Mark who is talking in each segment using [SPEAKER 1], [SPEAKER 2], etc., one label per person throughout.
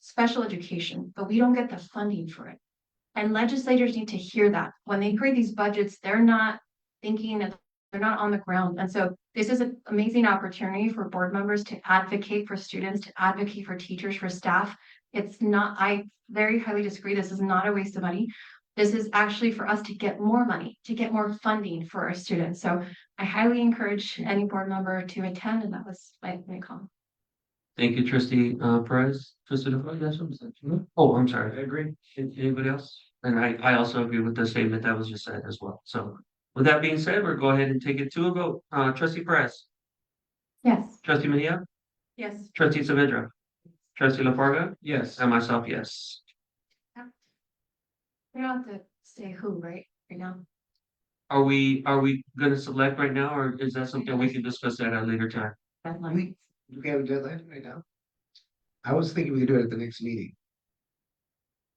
[SPEAKER 1] special education, but we don't get the funding for it. And legislators need to hear that. When they create these budgets, they're not thinking that they're not on the ground. And so this is an amazing opportunity for board members to advocate for students, to advocate for teachers, for staff. It's not, I very highly disagree. This is not a waste of money. This is actually for us to get more money, to get more funding for our students. So I highly encourage any board member to attend, and that was my, my comment.
[SPEAKER 2] Thank you, trustee uh Perez, trustee DeFoe, yes, I'm sorry. Oh, I'm sorry, I agree. An- Anybody else? And I I also agree with the statement that was just said as well. So with that being said, we'll go ahead and take it to a vote. Uh trustee Perez,
[SPEAKER 1] Yes.
[SPEAKER 2] trustee Mania,
[SPEAKER 1] Yes.
[SPEAKER 2] trustee Savedra, trustee LaFarga,
[SPEAKER 3] Yes.
[SPEAKER 2] and myself, yes.
[SPEAKER 1] We don't have to say who, right, right now?
[SPEAKER 2] Are we, are we gonna select right now, or is that something we can discuss at a later time?
[SPEAKER 1] Deadline.
[SPEAKER 3] We, we have a deadline right now? I was thinking we could do it at the next meeting.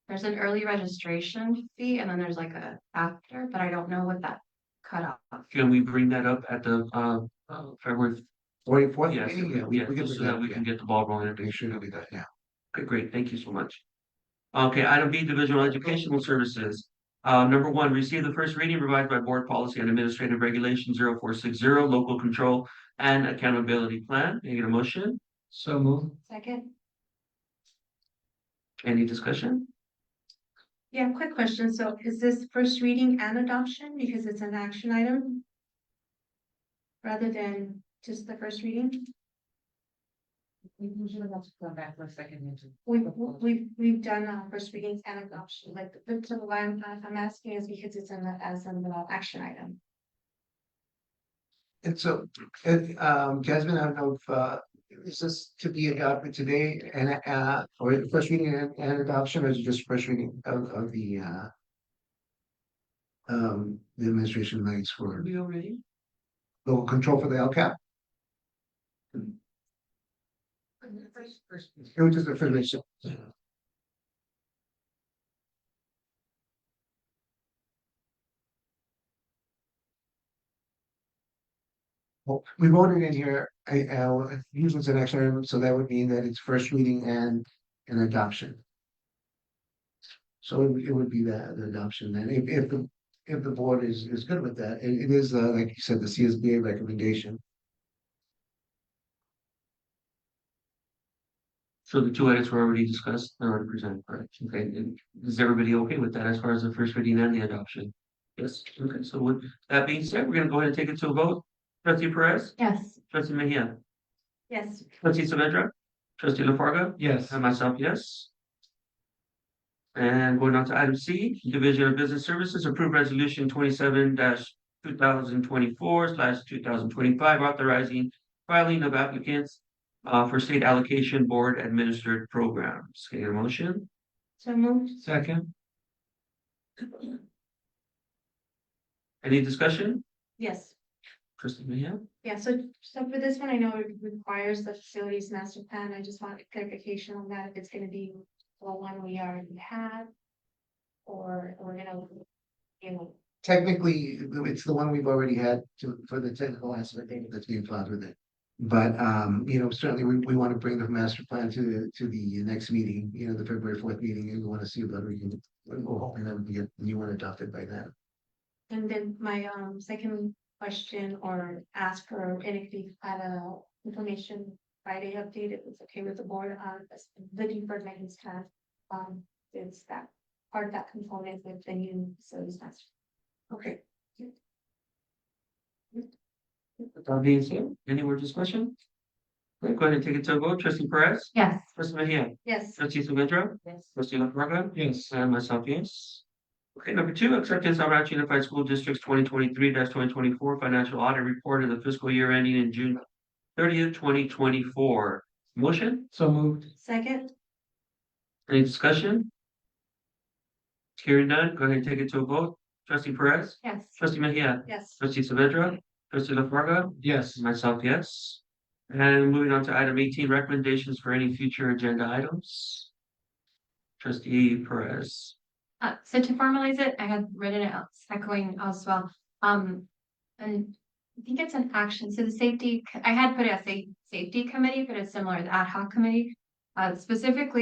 [SPEAKER 1] There's an early registration fee and then there's like a after, but I don't know what that cutoff.
[SPEAKER 2] Can we bring that up at the uh uh, February?
[SPEAKER 3] Twenty fourth
[SPEAKER 2] Yes,
[SPEAKER 3] meeting, yeah, we, we
[SPEAKER 2] yes,
[SPEAKER 3] could
[SPEAKER 2] so that we can get the ball rolling.
[SPEAKER 3] Make sure that we got, yeah.
[SPEAKER 2] Okay, great, thank you so much. Okay, item B, Divisional Educational Services. Uh, number one, receive the first reading revised by Board Policy and Administrative Regulation 0460, Local Control and Accountability Plan. Can I get a motion?
[SPEAKER 3] So move.
[SPEAKER 1] Second,
[SPEAKER 2] Any discussion?
[SPEAKER 4] Yeah, quick question. So is this first reading and adoption because it's an action item? Rather than just the first reading?
[SPEAKER 5] We usually have to come back for a second. meeting.
[SPEAKER 4] We've, we've, we've done uh first readings and adoption, like, but so why I'm, I'm asking is because it's in the, as an uh, action item.
[SPEAKER 3] And so, and um Jasmine, I don't know if uh, is this to be adopted today and uh, or first reading and and adoption, or is it just first reading of of the uh. Um, the administration rights for
[SPEAKER 2] we already?
[SPEAKER 3] local control for the LCAP, it was just a federation. Well, we voted in here, I, uh, usually it's an action item, so that would mean that it's first reading and an adoption. So it would- it would be that, the adoption, and if, if, the if the board is, is good with that, it, it is, uh, like you said, the CSBA recommendation.
[SPEAKER 2] So the two edits were already discussed, they're already presented, correct? Okay, and is everybody okay with that as far as the first reading and the adoption? Yes, okay, so with that being said, we're gonna go ahead and take it to a vote. Trustee Perez,
[SPEAKER 1] yes,
[SPEAKER 2] trustee Mejia,
[SPEAKER 4] Yes,
[SPEAKER 2] trustee Saavedra, trustee LaFarga,
[SPEAKER 3] Yes. um,
[SPEAKER 2] And myself, yes. And going on to item C, Division of Business Services, approved resolution twenty-seven two thousand twenty-four slash two thousand twenty-five, authorizing filing of applicants uh, for state allocation board administered programs. Can I get a motion?
[SPEAKER 4] so moved.
[SPEAKER 2] Second. Any discussion?
[SPEAKER 4] Yes.
[SPEAKER 2] Trustee Mahia?
[SPEAKER 4] Yeah, so, so for this one, I know it requires the facilities master plan. I just want clarification on that, if it's gonna be the one we already have. Or we're gonna, you know,
[SPEAKER 3] Technically, it's the one we've already had to, for the technical aspect that's being filed with it. But, um, you know, certainly we, we want to bring the master plan to, the to the next meeting, you know, the February fourth meeting, and we want to see whether we can. We're hoping that we get the new one adopted by then.
[SPEAKER 4] and then my um second question or ask for, and if you had a information Friday update, if it's okay with the board, uh, this- the deferred maintenance plan. Um, it's that part of that component with the new facilities master.
[SPEAKER 3] Okay.
[SPEAKER 2] With That being said, any more discussion? Okay, Go ahead and take it to a vote. Trustee Perez?
[SPEAKER 1] yes.
[SPEAKER 2] Trustee Mahia?
[SPEAKER 4] Yes.
[SPEAKER 2] Trustee Saavedra?
[SPEAKER 5] Yes.
[SPEAKER 2] Trustee LaFarga?
[SPEAKER 3] Yes.
[SPEAKER 2] And uh, myself, yes. Okay, number two, acceptance of Rancho Unified School District's twenty twenty-three twenty twenty-four financial audit report of the fiscal year ending in June thirtieth, twenty twenty-four. Motion,
[SPEAKER 3] So moved.
[SPEAKER 4] Second,
[SPEAKER 2] any discussion? Hearing none, go ahead and take it to a vote. Trustee Perez,
[SPEAKER 1] Yes.
[SPEAKER 2] trustee Mejia,
[SPEAKER 4] yes.
[SPEAKER 2] trustee Saavedra, trustee LaFarga,
[SPEAKER 3] Yes.
[SPEAKER 2] myself, yes. And moving on to item eighteen, recommendations for any future agenda items. Trustee Perez.
[SPEAKER 1] Uh, so to formalize it, I had written it out, echoing as well. Um, and I think it's an action. So the safety, I had put it as a safety committee, but it's similar to the ad hoc committee. Uh, specifically